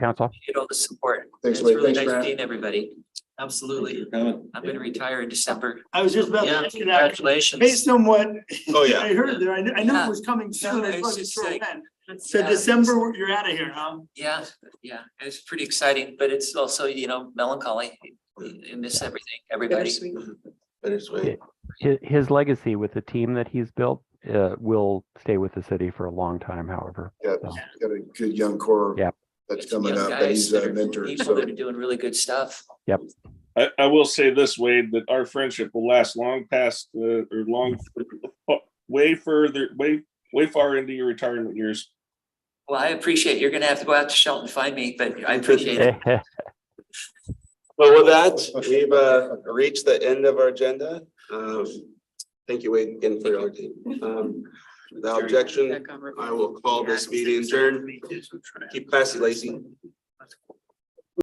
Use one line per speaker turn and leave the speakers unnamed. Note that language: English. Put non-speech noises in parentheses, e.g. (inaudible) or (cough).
Council.
Get all the support.
Thanks,
It's
Wade.
really
Thanks,
nice
Brad.
seeing everybody. Absolutely. I'm gonna retire in December.
I was just about to
Yeah,
ask you that,
congratulations.
based on what
Oh, yeah.
I heard there, I knew, I knew
Yeah.
it was coming soon, I wasn't sure when. So
Yeah.
December, you're out of here, huh?
Yeah, yeah, it's pretty exciting, but it's also, you know, melancholy. I miss everything, everybody.
Bittersweet.
His, his legacy with the team that he's built uh, will stay with the city for a long time, however.
Got, got a good young core.
Yeah.
That's
Some
coming
young
up, that
guys
he's
that
a
are-
mentor,
People that
so.
are doing really good stuff.
I, I will say this, Wade, that our friendship will last long past, uh, or long, (laughs) way further, way, way far into your retirement years.
Well, I appreciate, you're gonna have to go out to Shelton and find me, but I appreciate it.
Well, with
Oh,
that, we've uh reached the end of our agenda. Um, thank you, Wade, again for your team. Um, without objection, I will call this meeting adjourned. Keep classy, Lacy.